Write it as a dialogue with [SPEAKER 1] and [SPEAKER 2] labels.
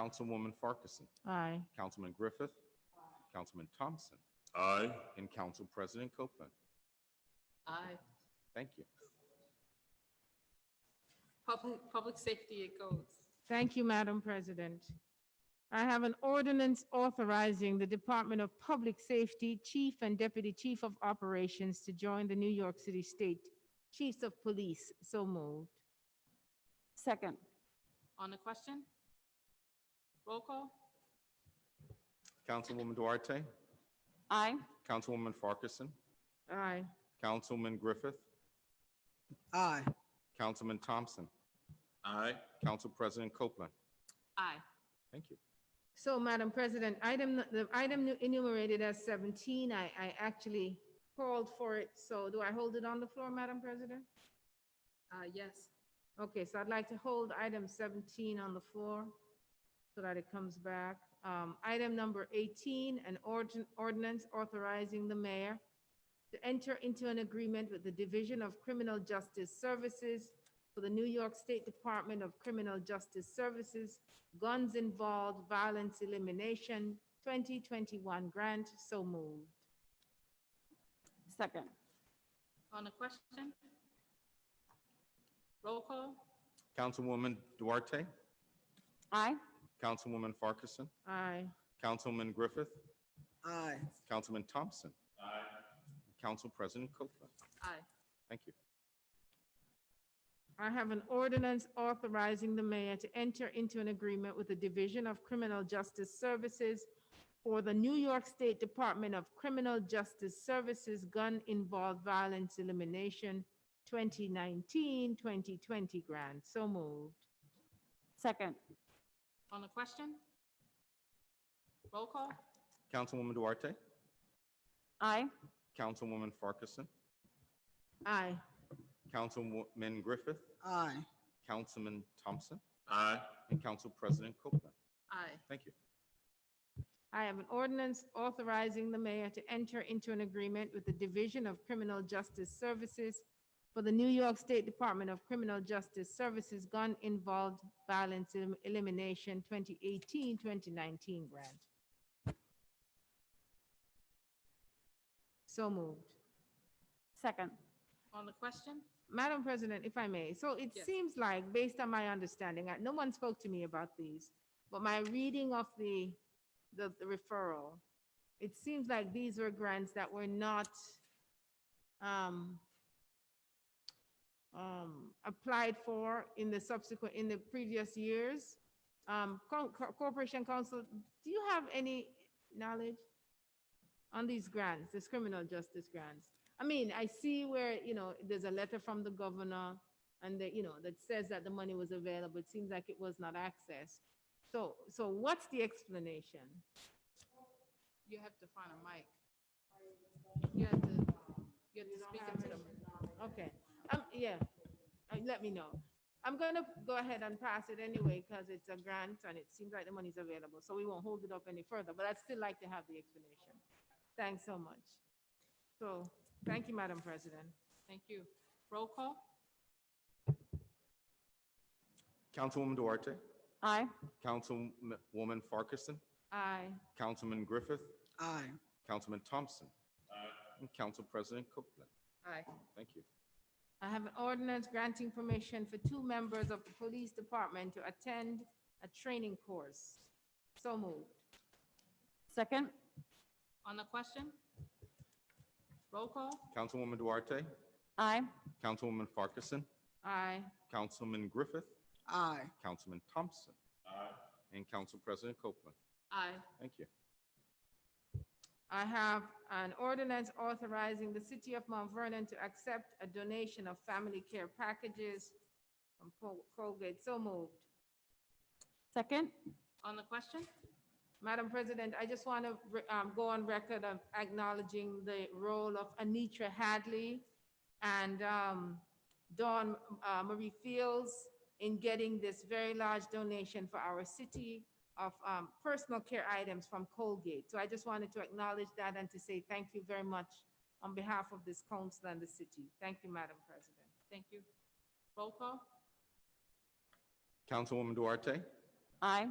[SPEAKER 1] Councilwoman Farkason,
[SPEAKER 2] Aye.
[SPEAKER 1] Councilman Griffith, Councilman Thompson,
[SPEAKER 3] Aye.
[SPEAKER 1] and Council President Copeland.
[SPEAKER 4] Aye.
[SPEAKER 1] Thank you.
[SPEAKER 4] Public, public safety, it goes.
[SPEAKER 2] Thank you, Madam President. I have an ordinance authorizing the Department of Public Safety Chief and Deputy Chief of Operations to join the New York City State Chiefs of Police. So moved.
[SPEAKER 5] Second.
[SPEAKER 4] On the question? Roll call?
[SPEAKER 1] Councilwoman Duarte,
[SPEAKER 5] Aye.
[SPEAKER 1] Councilwoman Farkason,
[SPEAKER 2] Aye.
[SPEAKER 1] Councilman Griffith,
[SPEAKER 6] aye,
[SPEAKER 1] Councilman Thompson,
[SPEAKER 3] Aye.
[SPEAKER 1] Council President Copeland.
[SPEAKER 4] Aye.
[SPEAKER 1] Thank you.
[SPEAKER 2] So, Madam President, item, the item enumerated as 17, I, I actually called for it. So do I hold it on the floor, Madam President?
[SPEAKER 4] Uh, yes.
[SPEAKER 2] Okay, so I'd like to hold item 17 on the floor so that it comes back. Um, Item number 18, an ordin- ordinance authorizing the mayor to enter into an agreement with the Division of Criminal Justice Services for the New York State Department of Criminal Justice Services Guns Involved Violence Elimination 2021 Grant. So moved.
[SPEAKER 5] Second.
[SPEAKER 4] On the question? Roll call?
[SPEAKER 1] Councilwoman Duarte,
[SPEAKER 5] Aye.
[SPEAKER 1] Councilwoman Farkason,
[SPEAKER 2] Aye.
[SPEAKER 1] Councilman Griffith,
[SPEAKER 6] aye,
[SPEAKER 1] Councilman Thompson. Aye. Council President Copeland.
[SPEAKER 4] Aye.
[SPEAKER 1] Thank you.
[SPEAKER 2] I have an ordinance authorizing the mayor to enter into an agreement with the Division of Criminal Justice Services for the New York State Department of Criminal Justice Services Gun Involved Violence Elimination 2019-2020 grant. So moved.
[SPEAKER 5] Second.
[SPEAKER 4] On the question? Roll call?
[SPEAKER 1] Councilwoman Duarte,
[SPEAKER 5] Aye.
[SPEAKER 1] Councilwoman Farkason,
[SPEAKER 2] Aye.
[SPEAKER 1] Councilman Griffith,
[SPEAKER 6] aye.
[SPEAKER 1] Councilman Thompson,
[SPEAKER 3] Aye.
[SPEAKER 1] and Council President Copeland.
[SPEAKER 4] Aye.
[SPEAKER 1] Thank you.
[SPEAKER 2] I have an ordinance authorizing the mayor to enter into an agreement with the Division of Criminal Justice Services for the New York State Department of Criminal Justice Services Gun Involved Violence Elim- Elimination 2018-2019 grant. So moved.
[SPEAKER 5] Second.
[SPEAKER 4] On the question?
[SPEAKER 2] Madam President, if I may, so it
[SPEAKER 4] Yes.
[SPEAKER 2] seems like, based on my understanding, I- no one spoke to me about these, but my reading of the, the the referral, it seems like these were grants that were not um, um, applied for in the subsequent, in the previous years. Um, Co- Co- Corporation Council, do you have any knowledge on these grants, these criminal justice grants? I mean, I see where, you know, there's a letter from the governor and that, you know, that says that the money was available. It seems like it was not accessed. So, so what's the explanation?
[SPEAKER 4] You have to find a mic. You have to, you have to speak into the mic.
[SPEAKER 2] Okay, um, yeah, Uh, let me know. I'm gonna go ahead and pass it anyway because it's a grant and it seems like the money's available, so we won't hold it up any further, but I'd still like to have the explanation. Thanks so much. So, thank you, Madam President.
[SPEAKER 4] Thank you. Roll call?
[SPEAKER 1] Councilwoman Duarte,
[SPEAKER 5] Aye.
[SPEAKER 1] Councilwoman Farkason,
[SPEAKER 2] Aye.
[SPEAKER 1] Councilman Griffith,
[SPEAKER 6] Aye.
[SPEAKER 1] Councilman Thompson, and Council President Copeland.
[SPEAKER 4] Aye.
[SPEAKER 1] Thank you.
[SPEAKER 2] I have an ordinance granting permission for two members of the police department to attend a training course. So moved.
[SPEAKER 5] Second.
[SPEAKER 4] On the question? Roll call?
[SPEAKER 1] Councilwoman Duarte,
[SPEAKER 5] Aye.
[SPEAKER 1] Councilwoman Farkason,
[SPEAKER 2] Aye.
[SPEAKER 1] Councilman Griffith,
[SPEAKER 6] Aye.
[SPEAKER 1] Councilman Thompson, and Council President Copeland.
[SPEAKER 4] Aye.
[SPEAKER 1] Thank you.
[SPEAKER 2] I have an ordinance authorizing the city of Mount Vernon to accept a donation of family care packages from Col- Colgate. So moved.
[SPEAKER 5] Second.
[SPEAKER 4] On the question?
[SPEAKER 2] Madam President, I just want to um, go on record of acknowledging the role of Anitra Hadley and um, Dawn uh, Marie Fields in getting this very large donation for our city of um, personal care items from Colgate. So I just wanted to acknowledge that and to say thank you very much on behalf of this council and the city. Thank you, Madam President.
[SPEAKER 4] Thank you. Roll call?
[SPEAKER 1] Councilwoman Duarte,
[SPEAKER 5] Aye.